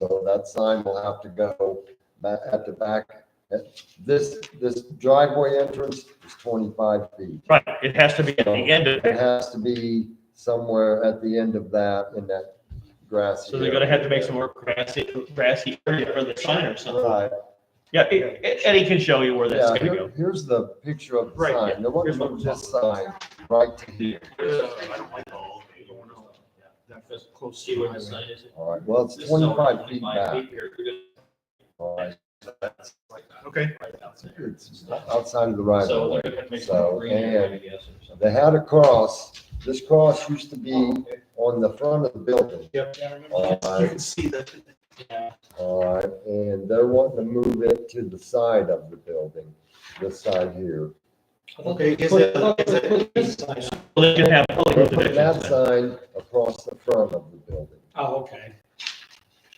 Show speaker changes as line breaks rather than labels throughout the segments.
So that sign will have to go back at the back. This, this driveway entrance is twenty-five feet.
Right, it has to be at the end of
It
it,
has to be somewhere at the end of that, in that grassy.
so they're gonna have to make some more grassy, grassy area for the sign or something.
Right,
Yeah, E- E- Eddie can show you where that's
yeah,
gonna
here-
go.
here's the picture of the
Right, yeah,
sign, the one
here's what
from
we're
this side, right to here.
See where the sign is?
All right, well, it's twenty-five feet back. All right,
Okay.
it's outside of the right of way. So, and
Right,
they had a cross, this cross used to be on the front of the building. All
You
right,
can see that.
all right, Uh, and they're wanting to move it to the side of the building, this side here.
Okay. is it- is it-
Well, they can have public
They're putting
divisions
that
then.
sign across the front of the building.
Oh, okay.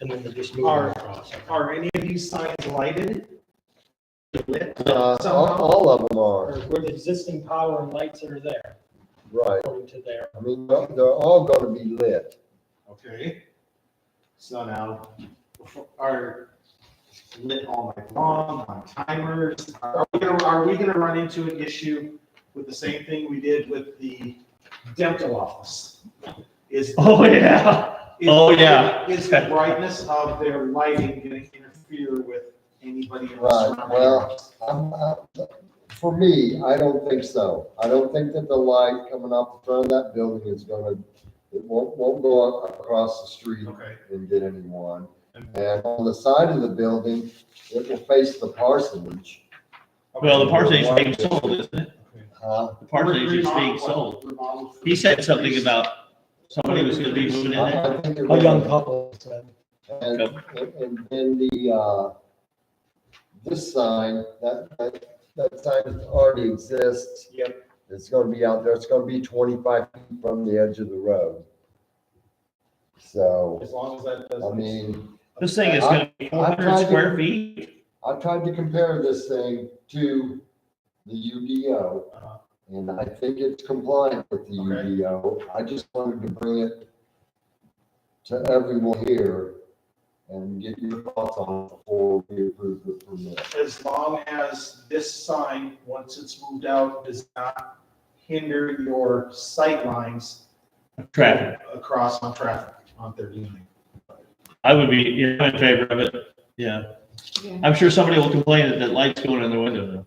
And then they just move
Are,
across.
are any of these signs lighted? Lit?
Uh, all, all of them
Or
are,
where the existing power and lights that are there,
right,
according to their,
I mean, they're they're all gonna be lit.
Okay. So now, are lit all night long, on timers? Are we gonna, are we gonna run into an issue with the same thing we did with the dental office? Is.
Oh, yeah,
Is-
Oh, yeah.
Is the brightness of their lighting gonna interfere with anybody in the
Right,
surrounding?
well-
areas?
I'm, I, for me, I don't think so. I don't think that the light coming off the front of that building is gonna, it won't, won't go up across the street
Okay.
and get anyone. And on the side of the building, it will face the parsonage.
well, the parsonage is being sold, isn't it?
Uh,
The parsonage is being sold. He said something about somebody was gonna be moving in
I-
there.
I think it
a young
will-
couple, so
And, and then the, uh, this sign, that, that, that sign already exists.
Yep.
It's gonna be out there, it's gonna be twenty-five feet from the edge of the road. So,
As long as that
I
doesn't.
mean,
This thing is gonna be four hundred square feet.
I tried to compare this thing to the UDO, and I think it's compliant with the
Okay.
UDO. I just wanted to bring it to everyone here and get your thoughts on it before we approve the permit.
as long as this sign, once it's moved out, does not hinder your sight lines
Traffic,
Across on traffic on thirty-nine.
I would be, you know, in favor of it, yeah. I'm sure somebody will complain that that light's going in the window though.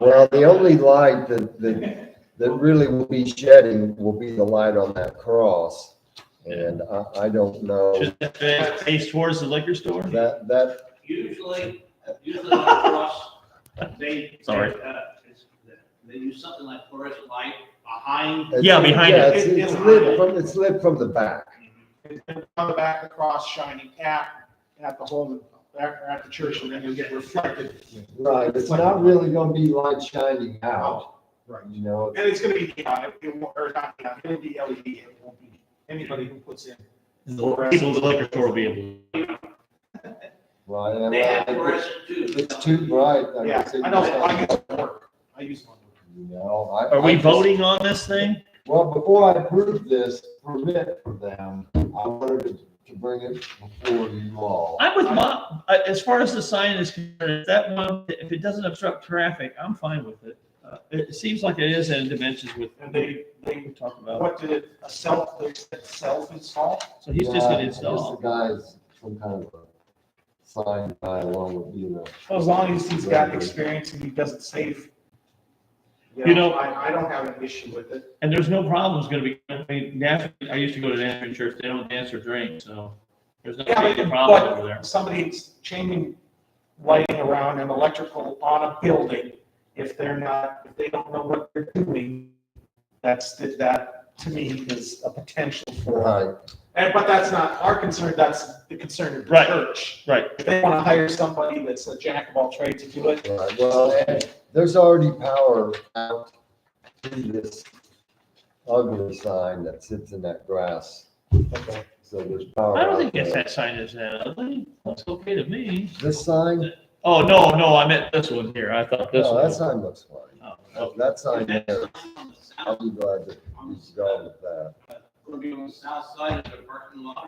Well, the only light that, that, that really will be shedding will be the light on that cross. And I, I don't know,
Should that face towards the liquor store?
that, that,
Usually, usually across, they.
Sorry.
uh, it's- They use something like fluorescent light behind.
it's-
Yeah, behind
yeah,
it.
It's, it's lit from, it's lit from the back.
Come back across shining at, at the home, back or at the church, and then you'll get reflected.
Right, it's not really gonna be light shining out,
Right.
you know,
And it's gonna be neon, it- it won't, or not neon, it'll be LED, it won't be, anybody who puts in.
The People at the liquor store will be able.
right?
They have
and I-
fluorescent tubes.
It's too bright. I
Yeah,
guess it
I know,
was-
I use one, I use one.
You know, I.
Are
I
we
just-
voting on this thing?
Well, before I approve this permit for them, I wanted to, to bring it before you all.
I'm with Bob, I- as far as the sign is concerned, if that one, if it doesn't obstruct traffic, I'm fine with it. Uh, It seems like it is in dimensions with,
And they, they,
we talked about,
what did it, a self, they said self-install?
so he's just
Yeah,
gonna
I guess
install.
The guy's some kind of a sign guy along with, you know.
Well, As long as he's got experience and he does it safe.
You know-
I, I don't have an issue with it.
And there's no problems gonna be, I mean, Nashville, I used to go to Nashville church, they don't dance or drink, so there's not gonna be a problem over there.
Somebody's changing lighting around and electrical on a building, if they're not, if they don't know what they're doing, that's, that, to me, is a potential for.
Right,
And, but that's not our concern, that's the concern of the
Right.
church.
Right,
If they want to hire somebody that's a jack of all trades to do it,
right. Well, and there's already power out to this ugly sign that sits in that grass.
okay.
So there's power.
I don't
out
think that's
there.
that sign is that ugly, looks okay to me.
This sign?
Oh, no, no, I meant this one here, I thought this
No,
one.
that sign looks fine.
Oh, oh.
That sign there,
On the
I'll
south-
be glad that
on
he's
the
gone
south-
with that.
Gonna be on the south side of the parking lot.